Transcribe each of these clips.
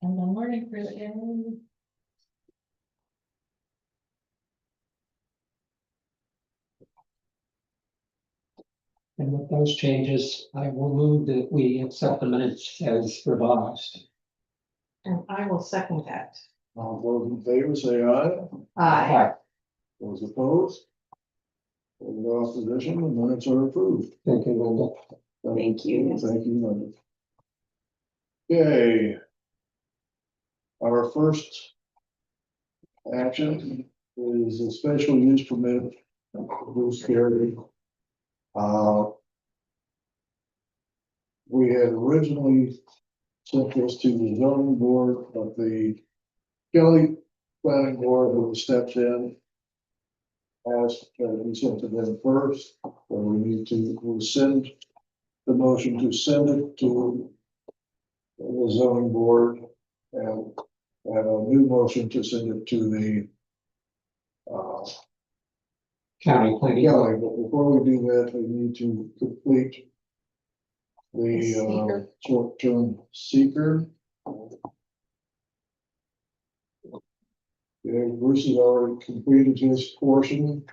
Morning, Christian. And with those changes, I will move that we accept the minutes as revised. And I will second that. All those in favor say aye, Aye. those opposed. No opposition, the minutes are approved. Thank you, Linda. Thank you. Thank you, Linda. Okay. Our first action is a special use permit, Bruce Carey. Uh, We had originally sent this to the zoning board, but the Kelly planning board who stepped in asked that we sent to them first, or we need to rescind the motion to send it to the zoning board and have a new motion to send it to the uh, County planning. Kelly, but before we do that, we need to complete the Seeker. uh, short-term seeker. Yeah, Bruce has already completed his portion.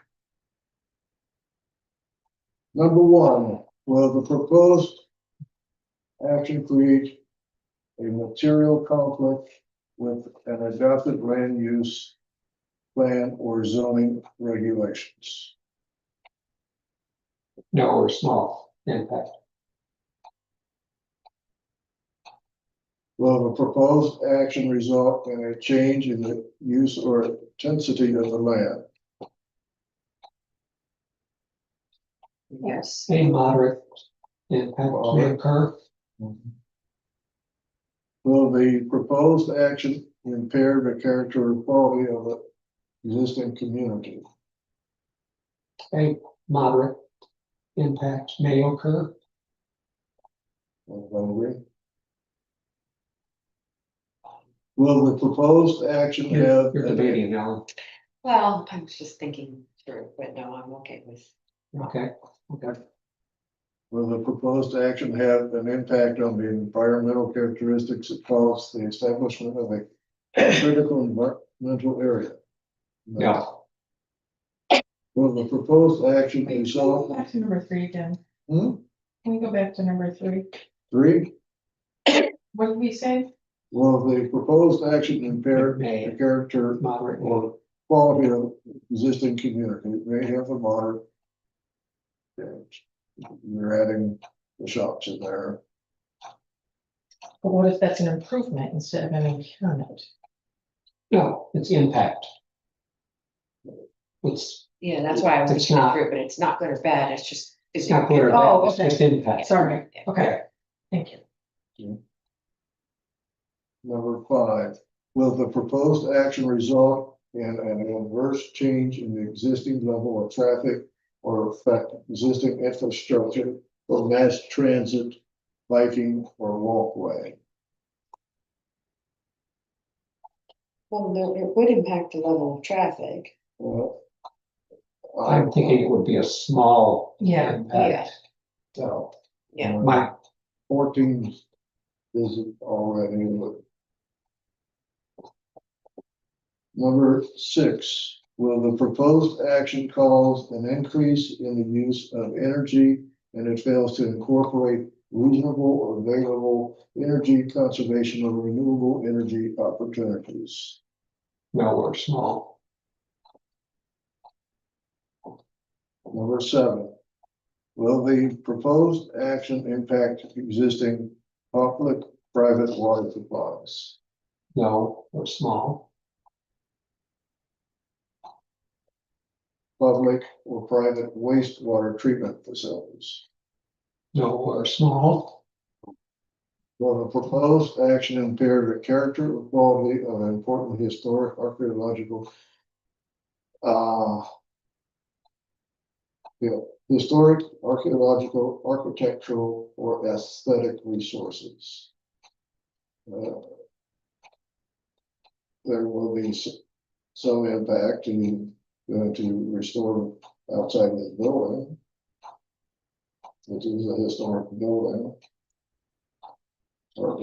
Number one, will the proposed action create a material conflict with an adopted land use plan or zoning regulations? No, or small impact. Will the proposed action result in a change in the use or intensity of the land? Yes. A moderate impact may occur. Will the proposed action impair the character or quality of the existing community? A moderate impact may occur. Everybody agree? Will the proposed action You're have? you're debating now. Well, I was just thinking through, but no, I'm okay with. Okay, okay. Will the proposed action have an impact on the environmental characteristics that cause the establishment of a critical environmental area? No, Will the proposed action result? Back to number three again. Hmm? Can we go back to number three? Three, What did we say? will the proposed action impair May. the character moderate or or quality of existing community? It May have a moderate. change. You're adding the shops in there. But what if that's an improvement instead of an impairment? no, it's impact. It's Yeah, that's why I was It's thinking not- through, but it's not good or bad, it's just. it's is it- not good or Oh, bad, it's okay. just impact. Sorry, okay, thank you. Number five, will the proposed action result in an adverse change in the existing level of traffic? Or affect existing infrastructure or mass transit, biking or walkway? Well, no, it would impact the level of traffic. Well, I'm thinking it would be a small Yeah, impact. So Yeah. my Fourteen isn't already. but- Number six, will the proposed action cause an increase in the use of energy? And it fails to incorporate reasonable or available energy conservation or renewable energy opportunities. No, or small. Number seven, will the proposed action impact existing public, private water supplies? No, or small. public or private wastewater treatment facilities. No, or small. Will the proposed action impair the character or quality of an important historic archaeological uh, yeah, historic, archaeological, architectural, or aesthetic resources? Uh, There will be s- some impact in, uh, to restore outside of the building. Which is a historic building. Or